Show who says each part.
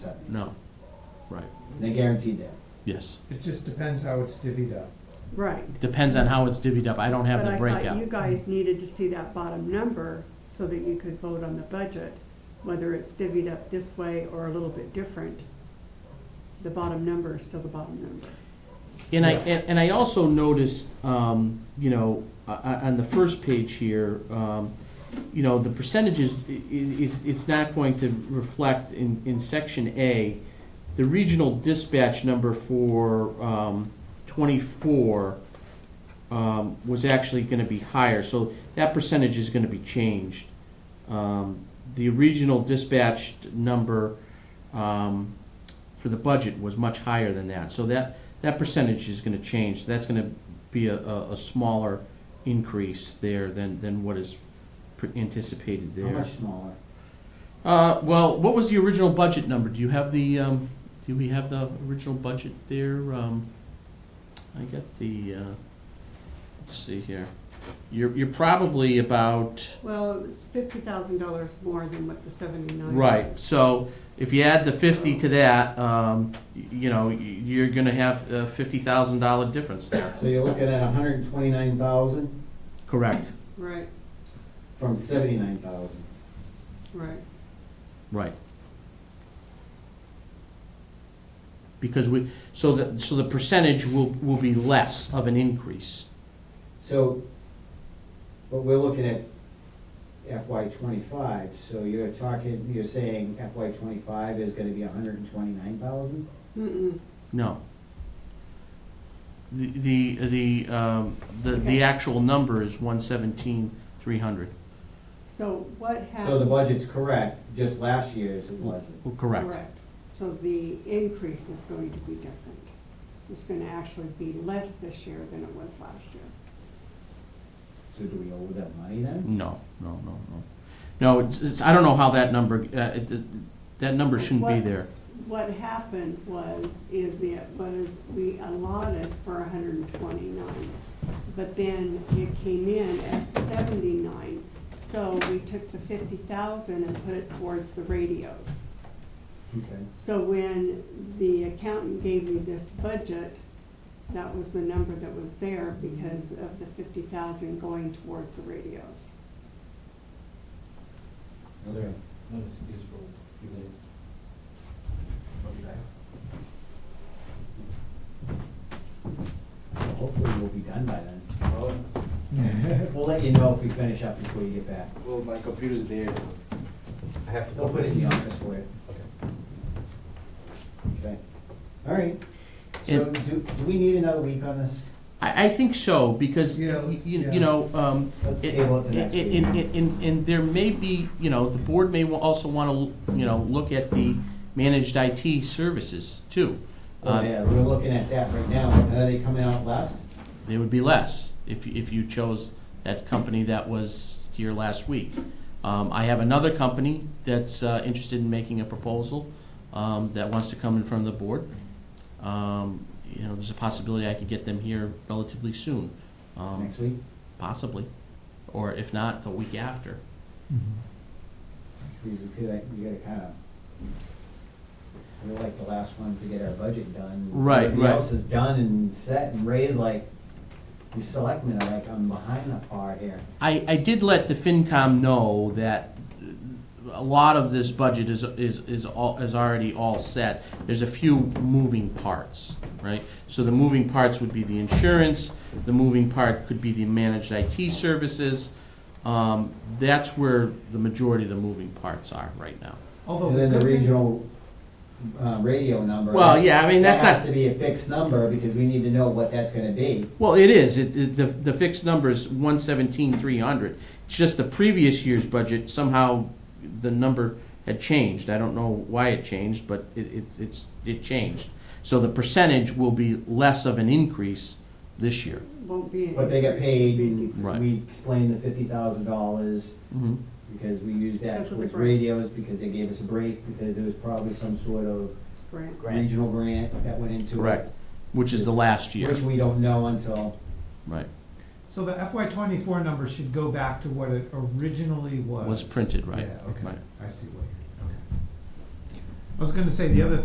Speaker 1: seventy.
Speaker 2: No, right,
Speaker 1: They guaranteed that.
Speaker 2: yes.
Speaker 3: It just depends how it's divvied up.
Speaker 4: Right.
Speaker 2: Depends on how it's divvied up. I don't have the
Speaker 4: But I thought you
Speaker 2: breakout.
Speaker 4: guys needed to see that bottom number so that you could vote on the budget, whether it's divvied up this way or a little bit different. The bottom number is still the bottom number.
Speaker 2: And I,
Speaker 3: Yeah.
Speaker 2: and and I also noticed, um, you know, o- o- on the first page here, um, you know, the percentages, i- i- it's, it's not going to reflect in, in section A, the regional dispatch number for, um, twenty-four, um, was actually gonna be higher, so that percentage is gonna be changed. Um, the regional dispatch number, um, for the budget was much higher than that, so that, that percentage is gonna change, that's gonna be a, a, a smaller increase there than, than what is pr- anticipated there.
Speaker 1: How much smaller?
Speaker 2: Uh, well, what was the original budget number? Do you have the, um, do we have the original budget there? Um, I got the, uh, let's see here. You're, you're probably about,
Speaker 4: Well, it was fifty thousand dollars more than what the seventy-nine.
Speaker 2: right,
Speaker 4: was.
Speaker 2: so if you add the fifty to that, um, y- you know, y- you're gonna have a fifty thousand dollar difference there.
Speaker 1: So you're looking at hundred and twenty-nine thousand
Speaker 2: Correct,
Speaker 4: Right,
Speaker 1: from seventy-nine thousand.
Speaker 4: right.
Speaker 2: right. Because we, so the, so the percentage will, will be less of an increase.
Speaker 1: So, but we're looking at FY twenty-five, so you're talking, you're saying FY twenty-five is gonna be hundred and twenty-nine thousand?
Speaker 4: Mm-mm.
Speaker 2: No. The, the, the, um, the, the
Speaker 4: Okay.
Speaker 2: actual number is one seventeen, three hundred.
Speaker 4: So what happened?
Speaker 1: So the budget's correct, just last year's it wasn't.
Speaker 2: Correct.
Speaker 4: So the increase is going to be different. It's gonna actually be less this year than it was last year.
Speaker 1: So do we owe that money then?
Speaker 2: No, no, no, no. No, it's, it's, I don't know how that number, uh, it, it- that number shouldn't be
Speaker 4: What?
Speaker 2: there.
Speaker 4: What happened was, is it was, we allotted for hundred and twenty-nine, but then it came in at seventy-nine. So we took the fifty thousand and put it towards the radios.
Speaker 1: Okay.
Speaker 4: So when the accountant gave me this budget, that was the number that was there because of the fifty thousand going towards the radios.
Speaker 1: Okay.
Speaker 5: Let us use for a few minutes. I'll be back.
Speaker 1: Hopefully we'll be done by then.
Speaker 5: Well,
Speaker 6: Mm-hmm.
Speaker 1: We'll let you know if we finish up before you get back.
Speaker 5: well, my computer's there, so I have to.
Speaker 1: They'll put it in the office for you.
Speaker 5: Okay.
Speaker 1: Okay. All right. So
Speaker 2: And-
Speaker 1: do, do we need another week on this?
Speaker 2: I, I think so, because,
Speaker 3: Yeah,
Speaker 2: you,
Speaker 3: let's- yeah.
Speaker 2: you know, um,
Speaker 1: Let's
Speaker 2: It-
Speaker 1: table it the next
Speaker 2: And,
Speaker 1: week.
Speaker 2: and- and- and there may be, you know, the board may wa- also want to, you know, look at the managed IT services too.
Speaker 1: Oh,
Speaker 2: Uh,
Speaker 1: yeah, we're looking at that right now. Are they coming out less?
Speaker 2: They would be less if, you- if you chose that company that was here last week. Um, I have another company that's uh, interested in making a proposal um, that wants to come in front of the board. Um, You know, there's a possibility I could get them here relatively soon, um,
Speaker 1: Next week?
Speaker 2: possibly, or if not, the week after.
Speaker 1: Because we could, like, we gotta kind of, we're like the last ones to get our budget done.
Speaker 2: Right,
Speaker 1: Everybody
Speaker 2: right.
Speaker 1: else is done and set and raised like, you selectmen are like, I'm behind the par here.
Speaker 2: I, I did let the FinCom know that a lot of this budget is, is, is all, is already all set. There's a few moving parts, right? So the moving parts would be the insurance, the moving part could be the managed IT services. Um, that's where the majority of the moving parts are right now.
Speaker 3: Although
Speaker 1: And then the
Speaker 3: good thing-
Speaker 1: regional, uh, radio number.
Speaker 2: Well, yeah, I mean, that's
Speaker 1: That has
Speaker 2: not,
Speaker 1: to be a fixed number because we need to know what that's gonna be.
Speaker 2: well, it is, it, it- the, the fixed number is one seventeen, three hundred. It's just the previous year's budget, somehow the number had changed. I don't know why it changed, but it, it, it's, it changed. So the percentage will be less of an increase this year.
Speaker 4: Won't be. an
Speaker 1: But they got
Speaker 4: increase,
Speaker 1: paid
Speaker 4: it'll be a
Speaker 1: and
Speaker 2: Right.
Speaker 1: we explained the fifty thousand dollars
Speaker 2: Mhm.
Speaker 1: because we used that
Speaker 4: That's what they
Speaker 1: towards
Speaker 4: brought.
Speaker 1: radios because they gave us a break because it was probably some sort of
Speaker 4: grant.
Speaker 1: regional grant that went into it.
Speaker 2: Correct, which is the last year,
Speaker 1: Which we don't know until,
Speaker 2: right,
Speaker 6: So the FY twenty-four number should go back to what it originally was.
Speaker 2: was printed, right?
Speaker 3: Yeah, okay,
Speaker 2: Right.
Speaker 3: I see what you're, okay.
Speaker 6: was gonna say, the other